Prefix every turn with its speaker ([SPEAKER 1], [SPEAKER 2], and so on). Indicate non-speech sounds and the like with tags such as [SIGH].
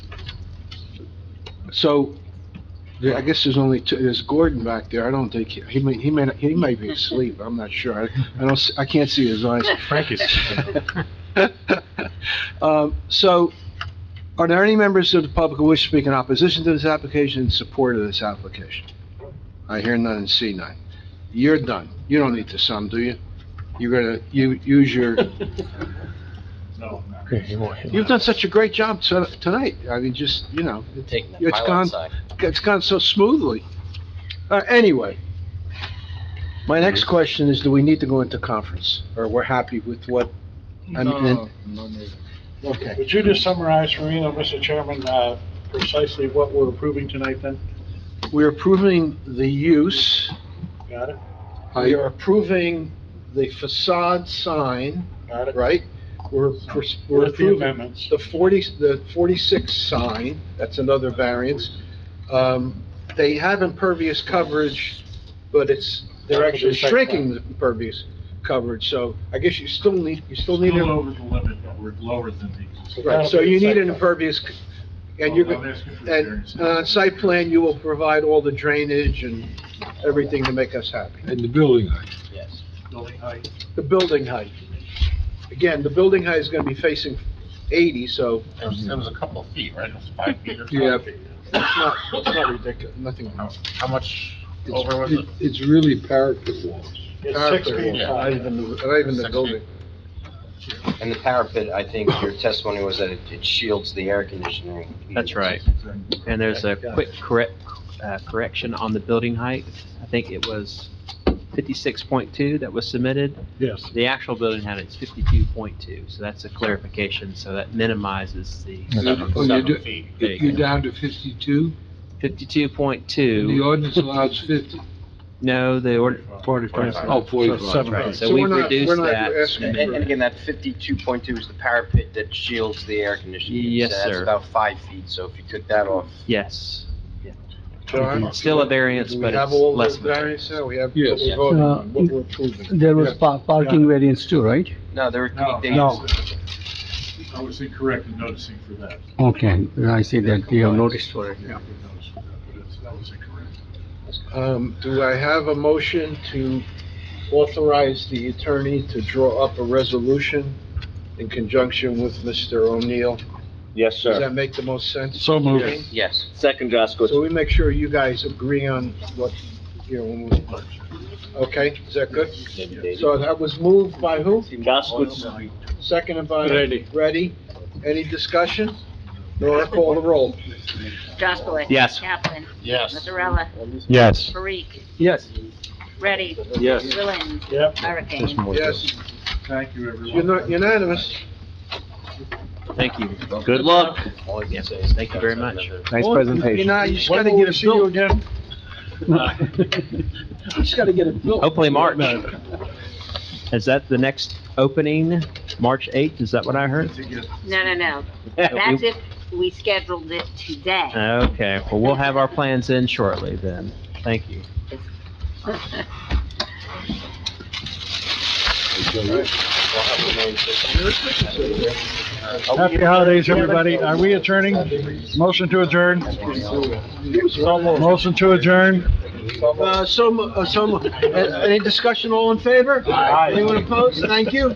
[SPEAKER 1] So, there, I guess there's only two, there's Gordon back there, I don't think, he he may, he may, not- he may be asleep, I'm not sure. I I don't, s- I can't see his eyes. [LAUGHS]
[SPEAKER 2] Frankie's.
[SPEAKER 1] Um, So, are there any members of the public who wish to speak in opposition to this application, in support of this application? I hear none and see none. You're done. You don't need to sum, do you? You're gonna, you, use your, you've done such a great job to- tonight. I mean, just, you know,
[SPEAKER 3] Taking
[SPEAKER 1] It's gone- it's gone so smoothly. Uh, anyway, my next question is, do we need to go into conference, or we're happy with what? I mean, and- Okay.
[SPEAKER 4] Would you just summarize for me, though, Mr. Chairman, uh, precisely what we're approving tonight then?
[SPEAKER 1] We're approving the use,
[SPEAKER 4] Got it?
[SPEAKER 1] we are approving the facade sign,
[SPEAKER 4] Got it?
[SPEAKER 1] right? We're, we're
[SPEAKER 4] With the
[SPEAKER 1] approving
[SPEAKER 4] amendments?
[SPEAKER 1] the forty, the forty-six sign, that's another variance. Um, they have impervious coverage, but it's, they're actually shrinking the impervious coverage, so I guess you still need, you still need,
[SPEAKER 5] Still
[SPEAKER 1] a-
[SPEAKER 5] over the limit, but we're lower than the,
[SPEAKER 1] right, so you need an impervious, c- and you're,
[SPEAKER 5] Well, I'm
[SPEAKER 1] go-
[SPEAKER 5] asking for
[SPEAKER 1] and
[SPEAKER 5] variance.
[SPEAKER 1] and on site plan, you will provide all the drainage and everything to make us happy.
[SPEAKER 2] And the building height.
[SPEAKER 3] Yes.
[SPEAKER 5] building height.
[SPEAKER 1] The building height. Again, the building height is gonna be facing eighty, so
[SPEAKER 5] There was, there was a couple of feet, right? It was five feet or
[SPEAKER 2] Yeah.
[SPEAKER 5] something.
[SPEAKER 1] it's not, it's not ridiculous, nothing.
[SPEAKER 5] How much
[SPEAKER 2] It's-
[SPEAKER 5] over was it?
[SPEAKER 2] It's really parapet walls.
[SPEAKER 4] It's six feet
[SPEAKER 5] Yeah.
[SPEAKER 1] Not
[SPEAKER 4] high.
[SPEAKER 1] even, the- not even the building.
[SPEAKER 3] And the parapet, I think your testimony was that it it shields the air conditioning.
[SPEAKER 6] That's right. And there's a quick correct, uh, correction on the building height. I think it was fifty-six point two that was submitted.
[SPEAKER 4] Yes.
[SPEAKER 6] The actual building height is fifty-two point two, so that's a clarification, so that minimizes the
[SPEAKER 5] Seven,
[SPEAKER 2] Oh, you do-
[SPEAKER 5] seven feet.
[SPEAKER 6] There you
[SPEAKER 2] You're
[SPEAKER 6] go.
[SPEAKER 2] down to fifty-two,
[SPEAKER 6] fifty-two point
[SPEAKER 2] and the
[SPEAKER 6] two.
[SPEAKER 2] ordinance allows fifty.
[SPEAKER 6] No, the order, forty-five.
[SPEAKER 2] Oh, forty-five.
[SPEAKER 4] seven
[SPEAKER 6] Right,
[SPEAKER 4] feet.
[SPEAKER 6] so
[SPEAKER 1] So
[SPEAKER 6] we
[SPEAKER 1] we're not- we're
[SPEAKER 6] reduced
[SPEAKER 1] not
[SPEAKER 6] that.
[SPEAKER 1] asking
[SPEAKER 3] And, and again, that fifty-two point two is the parapet that shields the air conditioning.
[SPEAKER 6] Yes,
[SPEAKER 3] So That's
[SPEAKER 6] sir.
[SPEAKER 3] about five feet, so if you took that off,
[SPEAKER 6] Yes,
[SPEAKER 1] John?
[SPEAKER 6] It's still a variance,
[SPEAKER 1] Do
[SPEAKER 6] but
[SPEAKER 1] We have
[SPEAKER 6] it's
[SPEAKER 1] all the
[SPEAKER 6] less. of a
[SPEAKER 1] variance now, we have what
[SPEAKER 2] Yes.
[SPEAKER 1] we're voting
[SPEAKER 7] Uh,
[SPEAKER 1] on, what we're approving.
[SPEAKER 7] There was pa- parking variance too, right?
[SPEAKER 3] no, there were.
[SPEAKER 5] No,
[SPEAKER 3] they-
[SPEAKER 7] No.
[SPEAKER 5] I was incorrect in noticing for that.
[SPEAKER 7] Okay, I see that you have noticed for it.
[SPEAKER 5] Yeah, I did notice for that, but it's- that was incorrect.
[SPEAKER 1] Um, do I have a motion to authorize the attorney to draw up a resolution in conjunction with Mr. O'Neill?
[SPEAKER 8] Yes,
[SPEAKER 1] Does
[SPEAKER 8] sir.
[SPEAKER 1] that make the most sense?
[SPEAKER 2] So moved.
[SPEAKER 1] Okay.
[SPEAKER 3] Yes.
[SPEAKER 8] Second, Jasko.
[SPEAKER 1] So we make sure you guys agree on what, you know, when we- okay, is that good? So that was moved by who?
[SPEAKER 8] Jasko.
[SPEAKER 1] Seconded by?
[SPEAKER 4] Ready.
[SPEAKER 1] Ready. Any discussion? Nora, call the roll.
[SPEAKER 9] Jaskowitz.
[SPEAKER 6] Yes.
[SPEAKER 9] Kaplan.
[SPEAKER 5] Yes.
[SPEAKER 9] Mazzarella.
[SPEAKER 7] Yes.
[SPEAKER 9] Parikh.
[SPEAKER 7] Yes.
[SPEAKER 9] Ready.
[SPEAKER 8] Yes.
[SPEAKER 9] Gilliland.
[SPEAKER 4] Yep.
[SPEAKER 9] Hurricane.
[SPEAKER 1] Yes,
[SPEAKER 5] Thank you, everyone.
[SPEAKER 1] Uno- unanimous.
[SPEAKER 6] Thank you.
[SPEAKER 8] Good luck.
[SPEAKER 3] All you can say is
[SPEAKER 6] Thank you very much.
[SPEAKER 1] Nice presentation. You know, you just gotta get it built.
[SPEAKER 4] again?
[SPEAKER 1] You just gotta get it built.
[SPEAKER 6] Hopefully March. Is that the next opening, March 8th? Is that what I heard?
[SPEAKER 9] No, no, no. That's if we scheduled it today.
[SPEAKER 6] Okay, well, we'll have our plans in shortly then. Thank you.
[SPEAKER 9] [LAUGHS]
[SPEAKER 4] Happy holidays, everybody. Are we adjourning? Motion to adjourn? Motion to adjourn?
[SPEAKER 1] Uh, so, mo- uh, so, mo- uh, any discussion, all in favor? Anyone opposed? Thank you.